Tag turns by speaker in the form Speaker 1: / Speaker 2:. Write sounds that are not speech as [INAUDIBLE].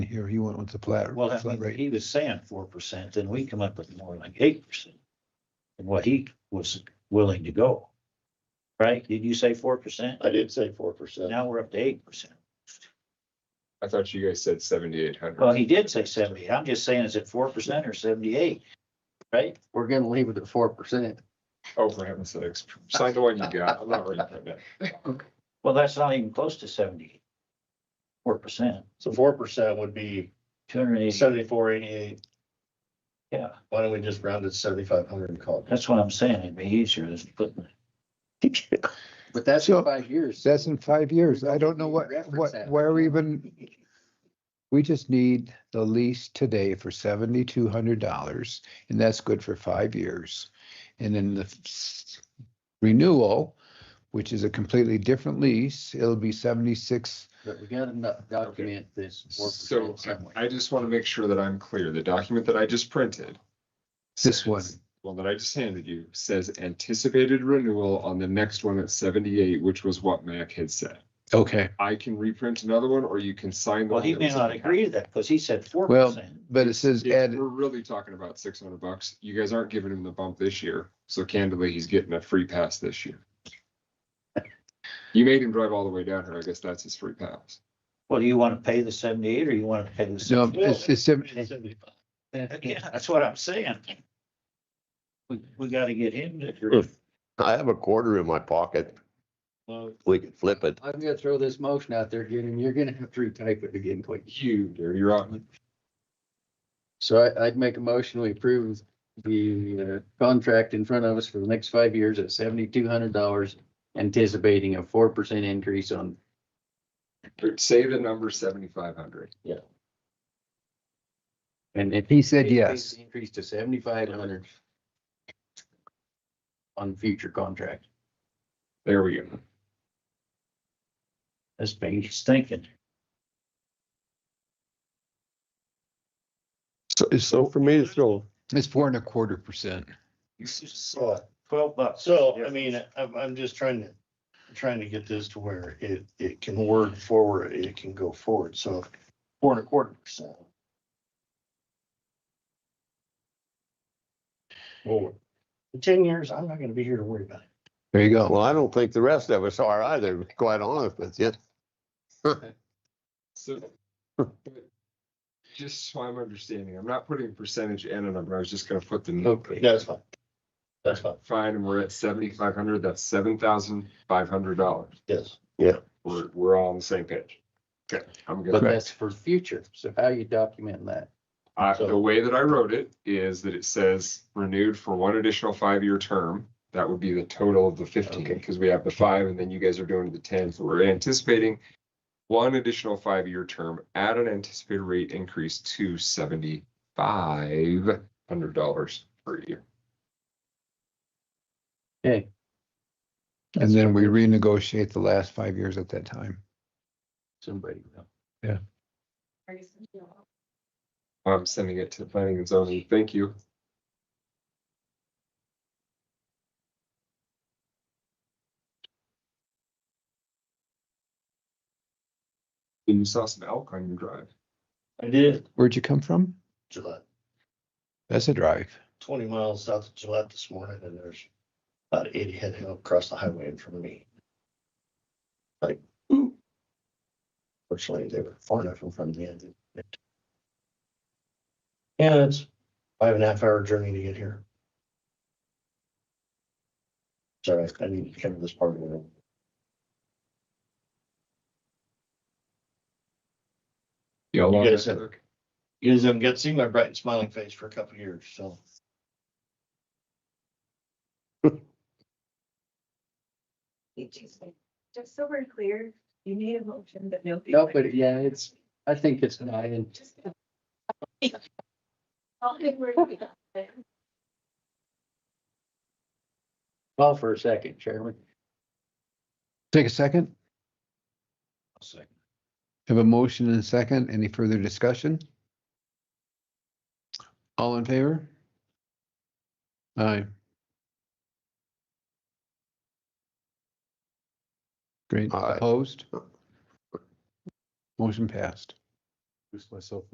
Speaker 1: Here, he went with the flat,
Speaker 2: Well, I
Speaker 1: flat
Speaker 2: mean,
Speaker 1: rate.
Speaker 2: he was saying four percent, then we come up with more like eight percent. And what he was willing to go. Right? Did you say four percent?
Speaker 3: I did say four percent.
Speaker 2: Now we're up to eight percent.
Speaker 4: I thought you guys said seventy-eight
Speaker 2: Well,
Speaker 4: hundred.
Speaker 2: he did say seventy. I'm just saying, is it four percent or seventy-eight? Right?
Speaker 5: We're gonna leave it at four percent.
Speaker 4: Oh, for heaven's sakes, sign the one you got. I'm not reading
Speaker 1: [LAUGHS]
Speaker 4: it.
Speaker 2: Well, that's not even close to seventy. Four percent,
Speaker 3: So four percent would be
Speaker 2: two hundred and eighty,
Speaker 3: seventy-four, eighty-eight.
Speaker 2: yeah,
Speaker 3: Why don't we just round it to seventy-five hundred and call it?
Speaker 2: that's what I'm saying. It'd be easier than putting.
Speaker 5: But that's
Speaker 1: So,
Speaker 5: in five years.
Speaker 1: That's in five years. I don't know what,
Speaker 5: Reference
Speaker 1: what,
Speaker 5: that.
Speaker 1: where we even, we just need the lease today for seventy-two hundred dollars, and that's good for five years. And then the s- renewal, which is a completely different lease, it'll be seventy-six.
Speaker 5: But we gotta no- document this four
Speaker 4: So uh,
Speaker 5: percent somewhere.
Speaker 4: I just want to make sure that I'm clear. The document that I just printed.
Speaker 1: This
Speaker 4: says-
Speaker 1: one.
Speaker 4: Well, that I just handed you says anticipated renewal on the next one at seventy-eight, which was what Mac had said.
Speaker 1: Okay.
Speaker 4: I can reprint another one or you can sign. the
Speaker 2: Well,
Speaker 4: one
Speaker 2: he
Speaker 4: that
Speaker 2: may
Speaker 4: was
Speaker 2: not
Speaker 4: in the
Speaker 2: agree to that because he said four
Speaker 1: Well,
Speaker 2: percent.
Speaker 1: but it says
Speaker 4: Yeah,
Speaker 1: add,
Speaker 4: we're really talking about six hundred bucks. You guys aren't giving him the bump this year, so candidly, he's getting a free pass this
Speaker 6: [LAUGHS]
Speaker 4: year. You made him drive all the way down here. I guess that's his free pass.
Speaker 2: Well, do you want to pay the seventy-eight or you want to pay the?
Speaker 1: no,
Speaker 2: 68?
Speaker 1: it's, it's, sim-
Speaker 2: Yeah, that's what I'm saying. We, we gotta get him to,
Speaker 6: Mm. I have a quarter in my pocket. We could flip it.
Speaker 5: I'm gonna throw this motion out there again, and you're gonna have to retype it again quick.
Speaker 4: You, dear, you're out.
Speaker 5: So I, I'd make a motion, we approve the uh, contract in front of us for the next five years at seventy-two hundred dollars, anticipating a four percent increase on,
Speaker 4: Say the number seventy-five hundred.
Speaker 5: and if.
Speaker 1: He said yes.
Speaker 5: Increase to seventy-five hundred on future contract.
Speaker 4: There we go.
Speaker 2: that's big, he's thinking.
Speaker 6: So for me to throw,
Speaker 1: it's four and a quarter percent.
Speaker 2: Twelve bucks.
Speaker 3: uh, So, I mean, I'm, I'm just trying to, trying to get this to where it, it can work forward, it can go forward, so four and a quarter percent. Well, in ten years, I'm not gonna be here to worry about it.
Speaker 1: There you go.
Speaker 6: well, I don't think the rest of us are either, to be quite honest with you.
Speaker 4: So. [LAUGHS] but Just so I'm understanding, I'm not putting a percentage and a number. I was just gonna put the. number.
Speaker 5: Okay.
Speaker 3: That's fine. That's fine,
Speaker 4: Fine, and we're at seventy-five hundred. That's seven thousand five hundred dollars.
Speaker 3: yes.
Speaker 4: We're, we're all on the same page. Okay, I'm good.
Speaker 5: But that's for future, so how you document that?
Speaker 4: Uh,
Speaker 3: So-
Speaker 4: the way that I wrote it is that it says renewed for one additional five-year term. That would be the total of the fifteen,
Speaker 5: Okay.
Speaker 4: because we have the five and then you guys are doing the ten, so we're anticipating one additional five-year term at an anticipated rate increase to seventy-five hundred dollars per year.
Speaker 5: Okay,
Speaker 1: And then we renegotiate the last five years at that time.
Speaker 5: somebody will.
Speaker 4: I'm sending it to planning and zoning. Thank you. You saw some elk on your drive.
Speaker 3: I did.
Speaker 1: Where'd you come from?
Speaker 3: Gillette,
Speaker 1: That's a drive.
Speaker 3: twenty miles south of Gillette this morning, and there's about eighty heading across the highway in front of me. Like, ooh. Fortunately, they were far enough in front of me. I didn't hit. Yeah, it's five and a half hour journey to get here. Sorry, I need to cover this part of it.
Speaker 4: Yeah, along
Speaker 3: guys
Speaker 4: that
Speaker 3: have-
Speaker 4: elk.
Speaker 3: You guys haven't got to see my bright and smiling face for a couple of years, so.
Speaker 7: Just so we're clear, you need a motion, but no.
Speaker 5: No, but yeah, it's, I think it's nine.
Speaker 7: Just- I'll think we're-
Speaker 5: Call for a second, Chairman.
Speaker 1: Take a second.
Speaker 2: I'll second.
Speaker 1: Have a motion and a second. Any further discussion? All in favor? Aye. Great.
Speaker 6: Aye.
Speaker 1: Opposed? Motion passed. introduce myself